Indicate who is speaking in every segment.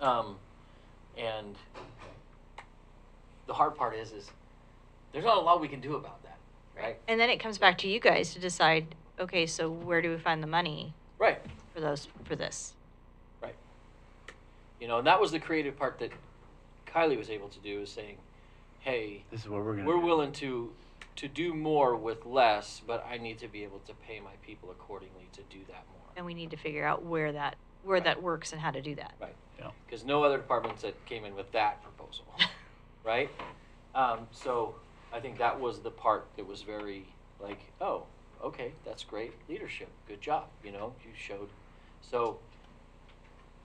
Speaker 1: Um, and the hard part is, is there's not a lot we can do about that, right?
Speaker 2: And then it comes back to you guys to decide, okay, so where do we find the money
Speaker 1: Right,
Speaker 2: for those, for this?
Speaker 1: right. You know, and that was the creative part that Kylie was able to do is saying, hey,
Speaker 3: This is what we're gonna.
Speaker 1: we're
Speaker 3: do.
Speaker 1: willing to to do more with less, but I need to be able to pay my people accordingly to do that more.
Speaker 2: And we need to figure out where that, where
Speaker 1: Right.
Speaker 2: that works and how to do that.
Speaker 1: Right.
Speaker 3: Yeah.
Speaker 1: Because no other department said came in with that proposal, right? Um, so I think that was the part that was very like, oh, okay, that's great leadership. Good job. You know, you showed. So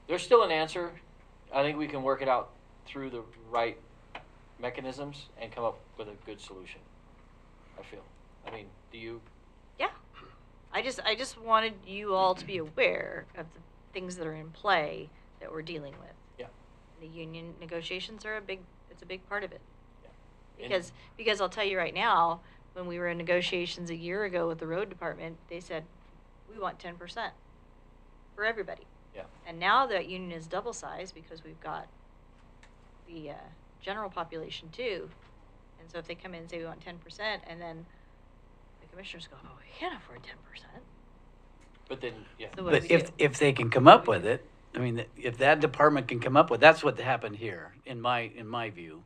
Speaker 1: there's still an answer. I think we can work it out through the right mechanisms and come up with a good solution. I feel. I mean, do you?
Speaker 2: Yeah. I just, I just wanted you all to be aware of the things that are in play that we're dealing with.
Speaker 1: Yeah.
Speaker 2: The union negotiations are a big, it's a big part of it.
Speaker 1: yeah. And-
Speaker 2: Because, because I'll tell you right now, when we were in negotiations a year ago with the road department, they said, we want ten percent for everybody.
Speaker 1: Yeah.
Speaker 2: And now that union is double sized because we've got the, uh, general population too. And so if they come in and say we want ten percent and then the commissioners go, oh, we can't afford ten percent.
Speaker 1: But then, yeah.
Speaker 2: So what do
Speaker 3: But
Speaker 2: we
Speaker 3: if,
Speaker 2: do?
Speaker 3: if they can come up with it, I mean, if that department can come up with, that's what happened here, in my, in my view.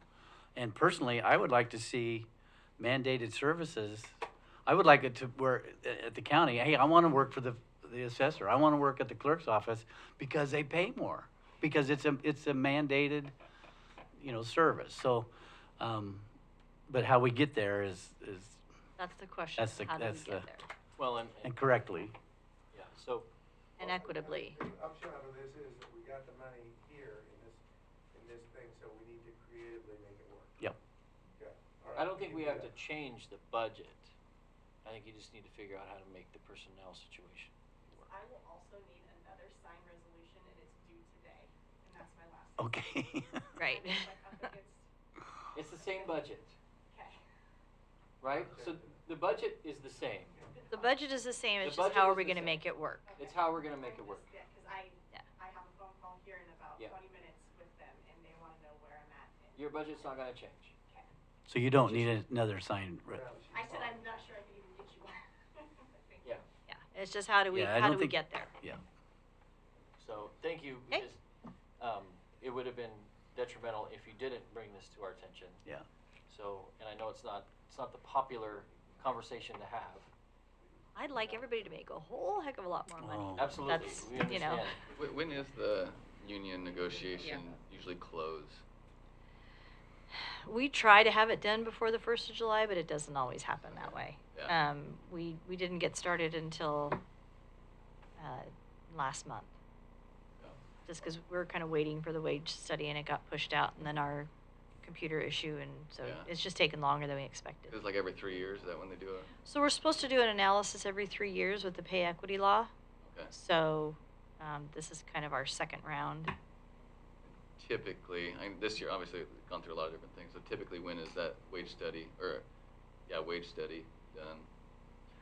Speaker 3: And personally, I would like to see mandated services. I would like it to, where, at the county, hey, I wanna work for the, the assessor, I wanna work at the clerk's office, because they pay more, because it's a, it's a mandated, you know, service, so, um, but how we get there is, is,
Speaker 2: That's the question.
Speaker 3: That's the-
Speaker 2: How do we
Speaker 3: that's
Speaker 2: get
Speaker 3: the-
Speaker 2: there?
Speaker 1: Well, and, and
Speaker 3: and correctly,
Speaker 1: yeah. So
Speaker 2: And equitably.
Speaker 4: The upshot of this is that we got the money here in this, in this thing, so we need to creatively make it work.
Speaker 3: Yep.
Speaker 4: Okay, all
Speaker 1: I
Speaker 4: right,
Speaker 1: don't think
Speaker 4: can
Speaker 1: we
Speaker 4: do
Speaker 1: have to
Speaker 4: that.
Speaker 1: change the budget. I think you just need to figure out how to make the personnel situation work.
Speaker 5: I will also need another signed resolution and it's due today, and that's my last.
Speaker 3: okay.
Speaker 2: Right.
Speaker 5: I'm just, like, up against-
Speaker 1: It's the same budget,
Speaker 5: Okay.
Speaker 1: right? So the budget is the same.
Speaker 2: The budget is the same,
Speaker 1: The
Speaker 2: it's just
Speaker 1: budget
Speaker 2: how are
Speaker 1: is
Speaker 2: we
Speaker 1: the same.
Speaker 2: gonna make it work?
Speaker 1: It's how we're gonna make it work.
Speaker 5: Yeah, cause I,
Speaker 2: Yeah.
Speaker 5: I have a phone call here in about
Speaker 1: Yeah.
Speaker 5: twenty minutes with them and they wanna know where I'm at. and-
Speaker 1: Your budget's not gonna change.
Speaker 3: So you don't need another sign, re-
Speaker 4: Yeah, she's
Speaker 5: I said
Speaker 4: fine.
Speaker 5: I'm not sure I can even get you one. Thank you.
Speaker 1: Yeah,
Speaker 2: Yeah, it's just how do we,
Speaker 3: Yeah, I
Speaker 2: how
Speaker 3: don't
Speaker 2: do we
Speaker 3: think-
Speaker 2: get there?
Speaker 3: yeah.
Speaker 1: so thank you.
Speaker 2: Okay.
Speaker 1: because, Um, it would have been detrimental if you didn't bring this to our attention.
Speaker 3: Yeah.
Speaker 1: So, and I know it's not, it's not the popular conversation to have.
Speaker 2: I'd like everybody to make a whole heck of a lot more money.
Speaker 3: Oh.
Speaker 1: Absolutely,
Speaker 2: That's,
Speaker 1: we
Speaker 2: you know.
Speaker 1: understand.
Speaker 6: Wh- When is the union negotiation usually close?
Speaker 2: We try to have it done before the first of July, but it doesn't always happen that way.
Speaker 6: Yeah.
Speaker 2: Um, we, we didn't get started until, uh, last month. Just because we were kind of waiting for the wage study and it got pushed out and then our computer issue and so
Speaker 6: Yeah.
Speaker 2: it's just taken longer than we expected.
Speaker 6: It's like every three years, is that when they do it?
Speaker 2: So we're supposed to do an analysis every three years with the pay equity law.
Speaker 6: Okay.
Speaker 2: So, um, this is kind of our second round.
Speaker 6: Typically, I mean, this year, obviously, we've gone through a lot of different things, so typically, when is that wage study, or, yeah, wage study done?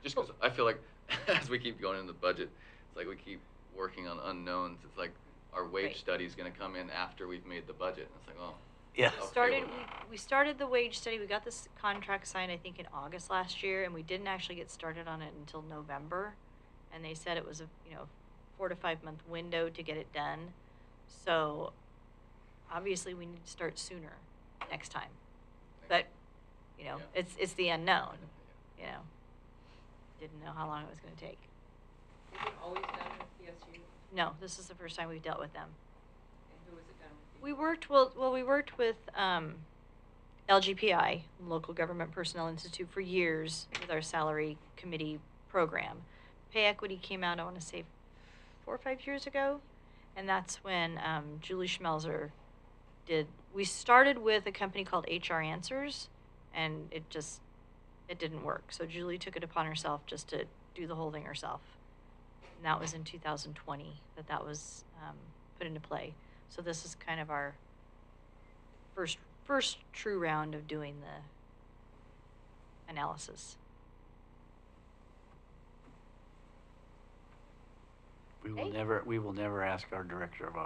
Speaker 6: Just because I feel like, as we keep going in the budget, it's like we keep working on unknowns, it's like, our
Speaker 2: Right.
Speaker 6: wage study's gonna come in after we've made the budget, and it's like, oh.
Speaker 3: Yeah.
Speaker 6: Okay,
Speaker 2: We
Speaker 6: well-
Speaker 2: started, we, we started the wage study, we got this contract signed, I think, in August last year, and we didn't actually get started on it until November. And they said it was a, you know, four to five month window to get it done. So obviously, we need to start sooner next time. But, you know,
Speaker 6: Yeah.
Speaker 2: it's, it's the unknown, you know. Didn't know how long it was gonna take.
Speaker 7: Is it always done with PSU?
Speaker 2: No, this is the first time we've dealt with them.
Speaker 7: And who is it done with?
Speaker 2: We worked, well, well, we worked with, um, LGPI, Local Government Personnel Institute, for years with our salary committee program. Pay equity came out, I wanna say, four or five years ago, and that's when, um, Julie Schmelzer did, we started with a company called HR Answers, and it just, it didn't work, so Julie took it upon herself just to do the whole thing herself. And that was in two thousand twenty, that that was, um, put into play. So this is kind of our first, first true round of doing the analysis.
Speaker 3: We will
Speaker 2: Okay.
Speaker 3: never, we will never ask our director of